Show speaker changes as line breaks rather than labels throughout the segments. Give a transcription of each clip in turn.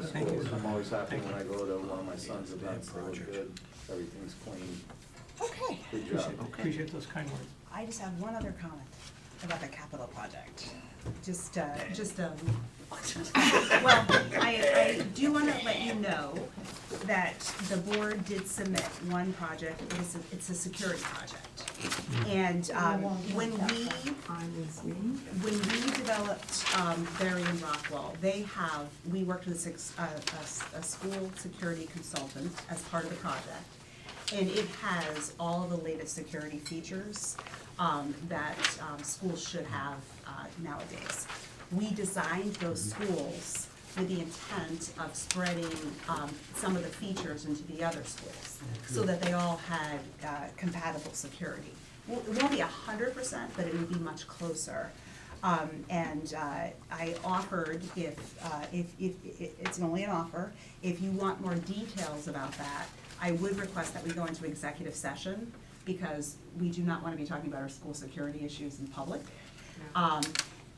that's
Thank
cool.
you.
I'm always happy
Thank
when I
you.
go to one of my son's
Yeah,
events, they look
project.
good, everything's clean,
Okay.
good job.
Appreciate- Appreciate those kind words.
I just have one other comment about the capital project. Just, uh, just, um, well, I, I do wanna let you know that the board did submit one project, it was, a- it's a security project. And, um, when we
On his name?
when we developed um, Berry and Rockwell, they have, we worked with a six- a, a s- a school security consultant as part of the project. And it has all the latest security features um, that um, schools should have uh, nowadays. We designed those schools with the intent of spreading um, some of the features into the other schools so that they all had uh, compatible security. Well, It won't be a hundred percent, but it would be much closer. Um, and, uh, I offered if, uh, if, if, i- it's only an offer, if you want more details about that, I would request that we go into executive session, because we do not wanna be talking about our school security issues in public. Um,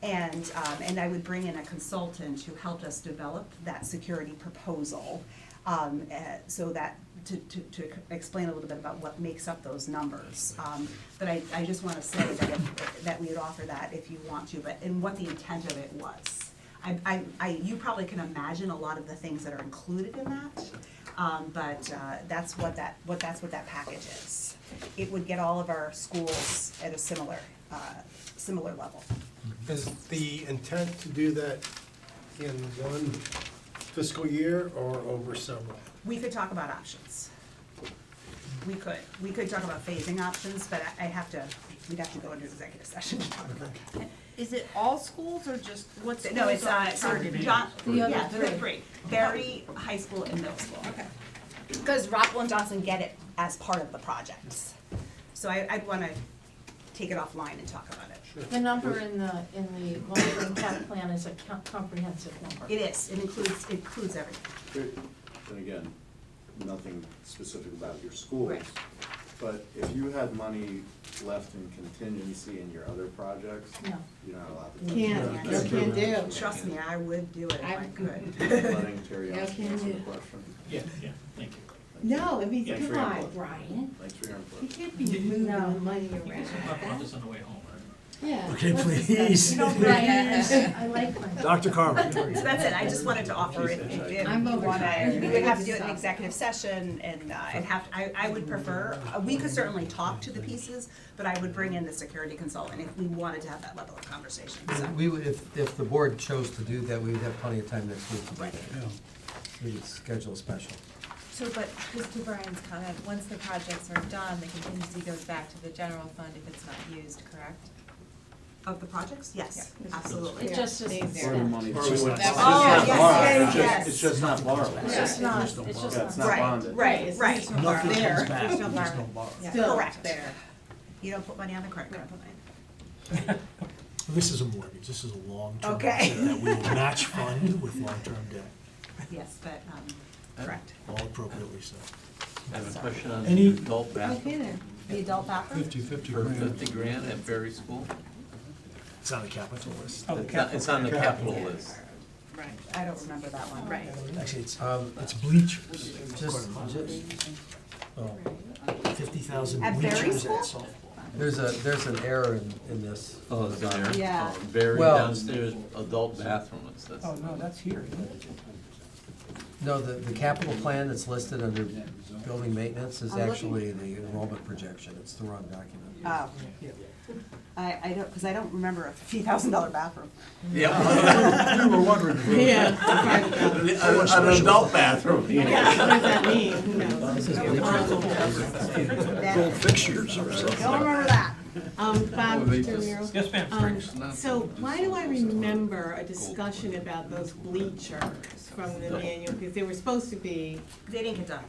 and, um, and I would bring in a consultant who helped us develop that security proposal, um, eh, so that, to, to, to explain a little bit about what makes up those numbers. Um, but I, I just wanna say that, if- that we would offer that if you want to, but, and what the intent of it was. I, I, I, you probably can imagine a lot of the things that are included in that, um, but, uh, that's what that, what, that's what that package is. It would get all of our schools at a similar, uh, similar level.
Is the intent to do that in one fiscal year or over several?
We could talk about options. We could, we could talk about phasing options, but I I have to, we'd have to go into executive session to talk about that.
Is it all schools or just what's?
No, it's, uh, it's John,
The other
yeah, the
three.
three, Berry, high school and middle school.
Okay.
Because Rockwell and Johnson get it as part of the project. So I, I'd wanna take it offline and talk about it.
Sure.
The number in the, in the long-term cap plan is a co- comprehensive number.
It is, it includes, it includes everything.
And again, nothing specific about your schools.
Right.
But if you had money left in contingency in your other projects,
No.
you're not allowed to. touch
Can't,
that.
no can do.
Trust me, I would do it if I
I'm-
could.
Letting Terry
No
answer
can
the
do.
question.
Yeah, yeah, thank you.
No, I mean,
Yeah,
come
free
on,
input.
Brian.
Thanks for your
You
input.
can't be moving
No.
money
You guys can talk about
around.
this on the way home, right?
Yeah.
Okay,
let's discuss
please.
it.
Oh,
I like my.
Dr. Carver?
So that's it, I just wanted to offer it, if if
I'm
you wanna,
overtired.
we would have to do it in executive session, and, uh, I'd have, I, I would prefer, uh, we could certainly talk to the pieces, but I would bring in the security consultant if we wanted to have that level of conversation, so.
We would, if, if the board chose to do that, we would have plenty of time next week to do
Right.
that. We could schedule a special.
So, but just to Brian's comment, once the projects are done, the contingency goes back to the general fund if it's not used, correct?
Of the projects, yes,
Yeah.
absolutely.
It just isn't.
Or the money.
Or was
It's
that-
just
Oh,
not
yes,
borrowed. It's just-
yes, yes.
It's just not borrowed.
It's just not, it's just
Yeah, it's
not.
not bonded.
Right, right,
It's not
right,
there.
There's no bar.
Still
Correct.
there.
You don't put money on the credit card
This is a mortgage, this is a long-term
Oh. Okay.
debt that we will match fund with long-term debt,
line, yes, but, um, correct.
all appropriately so.
I have a question on
Any-
the adult
Okay
bathroom
then.
The adult bathroom?
fifty
for fifty grand at Berry School.
It's on the capital list.
Oh,
It's on-
capital.
It's on the capital list.
Right.
I don't remember that one.
Right.
Actually, it's,
Um,
it's bleachers.
Just, just, oh,
Fifty thousand
At Berry
bleachers at
School?
softball.
there's a, there's an error in, in this.
Oh, it's on there?
Yeah.
Oh, Berry
Well-
downstairs, adult bathroom, it says.
Oh, no, that's here. isn't it?
No, the, the capital plan that's listed under building maintenance is
I'm looking. Uh,
actually the enrollment projection, it's the wrong document.
Oh. I, I don't, cause I don't remember a fifty thousand dollar bathroom.
Yeah,
We were wondering.
Yeah.
an an adult bathroom.
Yeah, What does that mean? Who knows?
Don't
Fixtures or something.
remember that.
Um, Bob,
Wait,
Mr.
this-
Miro.
Yes, ma'am.
Um,
not-
so why do I remember a discussion about those bleachers from the manual? Because they were supposed to be,
They didn't get done.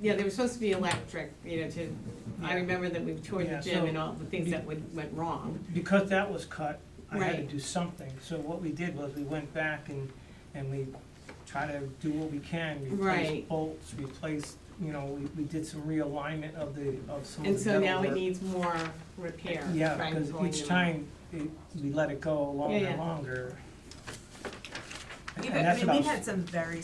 yeah, they were supposed to be electric, you know, to, I remember that we toured
Yeah,
the gym
so-
and all the things that would, went wrong.
Because that was cut, I had to
Right.
do something. So what we did was we went back and, and we try to do what we can. Replace
Right.
bolts, replace, you know, we, we did some realignment of the, of some of the.
And so now
metalwork.
it needs more repair.
Yeah,
right,
because
going
each
in.
time it- we let it go longer
Yeah,
and
yeah.
longer.
We've,
And
I
that's
mean,
what I
we've
was-
had some very